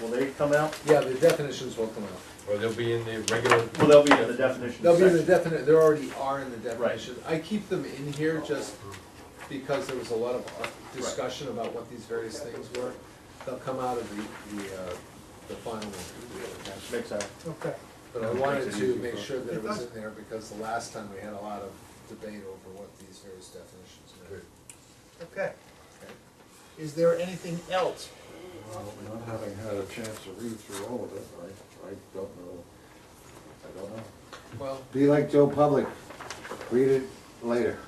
Will they come out? Yeah, the definitions will come out. Or they'll be in the regular. Well, they'll be in the definition They'll be in the section. definite, there already are in the definitions. I keep them in here just because there was a lot of uh, discussion about what these various things were. They'll come out of the, the, uh, the final one. Makes sense. Okay. But I wanted to make sure that it was It in there because the last time we had a lot of debate over what these various definitions meant. Okay. Is there anything else? Well, not having had a chance to read through all of it, I, I don't know, I don't know. Well, Be like Joe Public, read it later.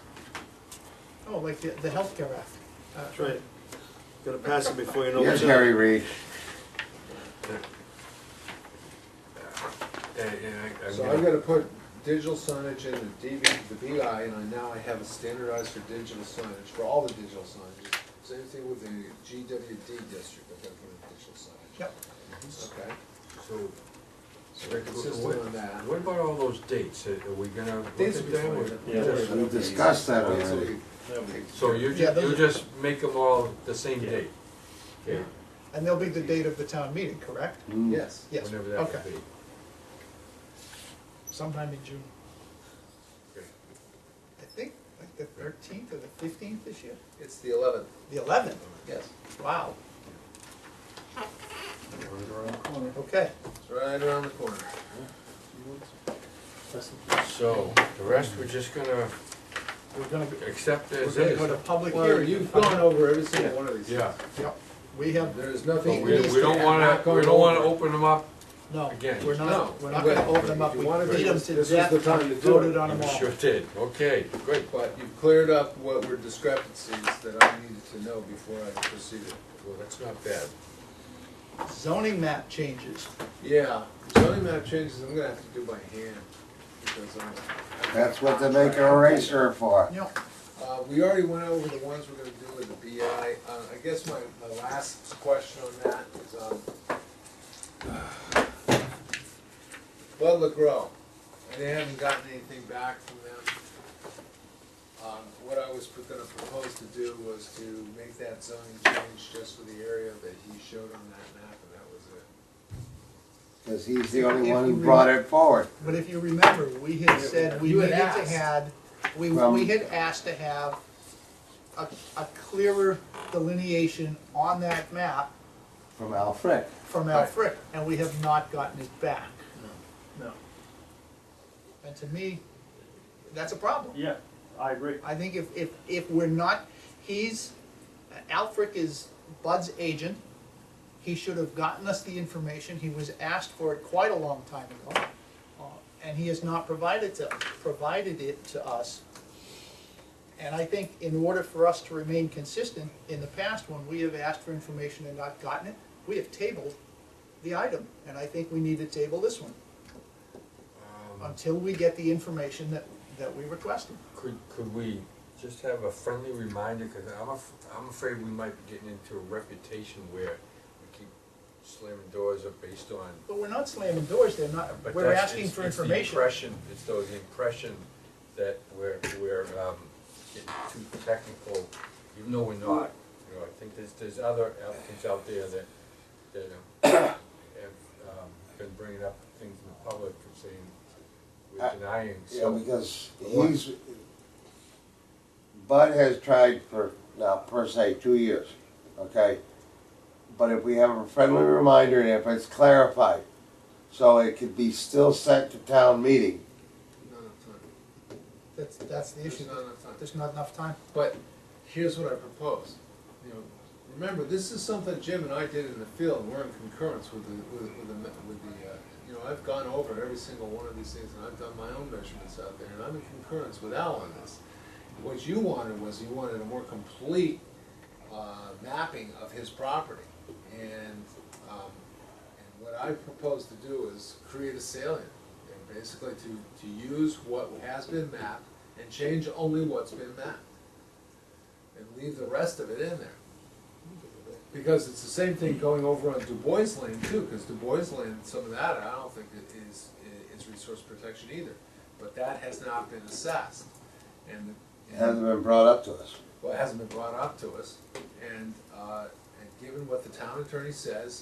Oh, like the, the healthcare act. Uh, That's right. Gotta pass it before you know Yes, what's in Harry it. Reid. And, and I, I'm So I'm gonna, gonna put digital signage in the DB, the BI, and I now I have a standardized for digital signage, for all the digital signage. Same thing with the GWD district, I've gotta put in digital signage. Yep. Okay, so. so we're consistent What- on that. What about all those dates? Are are we gonna look Dates at will be them? or- fine. Yeah, those We discussed that Dates will already. be- They'll be- So you Yeah, just, those you are- just make them all the same Yeah. date? Okay, And there'll be the date of the town meeting, correct? Hmm. Yes, Yes, whenever that okay. would be. Sometime in June. Okay. I think, like the thirteenth or the fifteenth this year? it's the eleventh, The eleventh, yes, wow, Right around the corner. okay. it's right around the corner. So, the rest, we're just gonna We're gonna, be- accept we're as gonna go to is. public Well, hearing. you've gone over every single one of these. Yeah, Yep, we have, There is but we, nothing. easy we don't and wanna, not we going don't wanna over. open them up, no, Again. we're No, not, we're not but gonna open them if up, you we wanna beat do them this, to this is death, the time to do voted it. on them you all. sure did, okay, good. But you've cleared up what were discrepancies that I needed to know before I proceeded. Well, that's not bad. Zoning map changes, Yeah, zoning map changes, I'm gonna have to do by hand, because I'm. That's what they make an eraser for. you know, Uh, we already went over the ones we're gonna do with the BI, uh, I guess my, my last question on that is, um, Bud LaGrow, and they haven't gotten anything back from them. Um, what I was pro- gonna propose to do was to make that zoning change just for the area that he showed on that map, and that was it. Cause he's the only one who brought it forward. but if you remember, we had said we You had needed to asked. had, we, Well- we had asked to have a, a clearer delineation on that map From Alfred. from Al Frick, and we have not gotten it back. No. And to me, that's a problem. Yeah, I agree. I think if, if, if we're not, he's, Alfric is Bud's agent. He should have gotten us the information. He was asked for it quite a long time ago. uh, And he has not provided to, provided it to us. And I think in order for us to remain consistent, in the past, when we have asked for information and not gotten it, we have tabled the item. And I think we need to table this one Um, until we get the information that, that we requested. Could, could we just have a friendly reminder, because I'm, af- I'm afraid we might be getting into a reputation where we keep slamming doors up based on. But we're not slamming doors, they're not, but we're that's- asking it's- for it's the information. impression- It's though the impression that we're, we're, um, getting too technical, even though we're not. You know, I think there's, there's other applicants out there that, that um, have, um, been bringing up things in the public and saying we're I- denying, Yeah, so. because he's, Bud has tried for, now, per se, two years, okay? But if we have a friendly reminder, and if it's clarified, so it could be still sent to town meeting, Not enough time, That's, that's the there's issue, not enough time. there's not enough time. But here's what I propose, you know, remember, this is something Jim and I did in the field, and we're in concurrence with the, with, with the, me- with the, uh, you know, I've gone over every single one of these things, and I've done my own measurements out there, and I'm in concurrence with Al on this. What you wanted was, you wanted a more complete, uh, mapping of his property, and, um, and what I propose to do is create a salient, and basically to, to use what has been mapped, and change only what's been mapped and leave the rest of it in there. Because it's the same thing going over on Du Bois Lane too, because Du Bois Lane, some of that, I don't think it is, is resource protection either. But that has not been assessed, and, it hasn't and, been brought up to us. well, it hasn't been brought up to us. And, uh, and given what the town attorney says,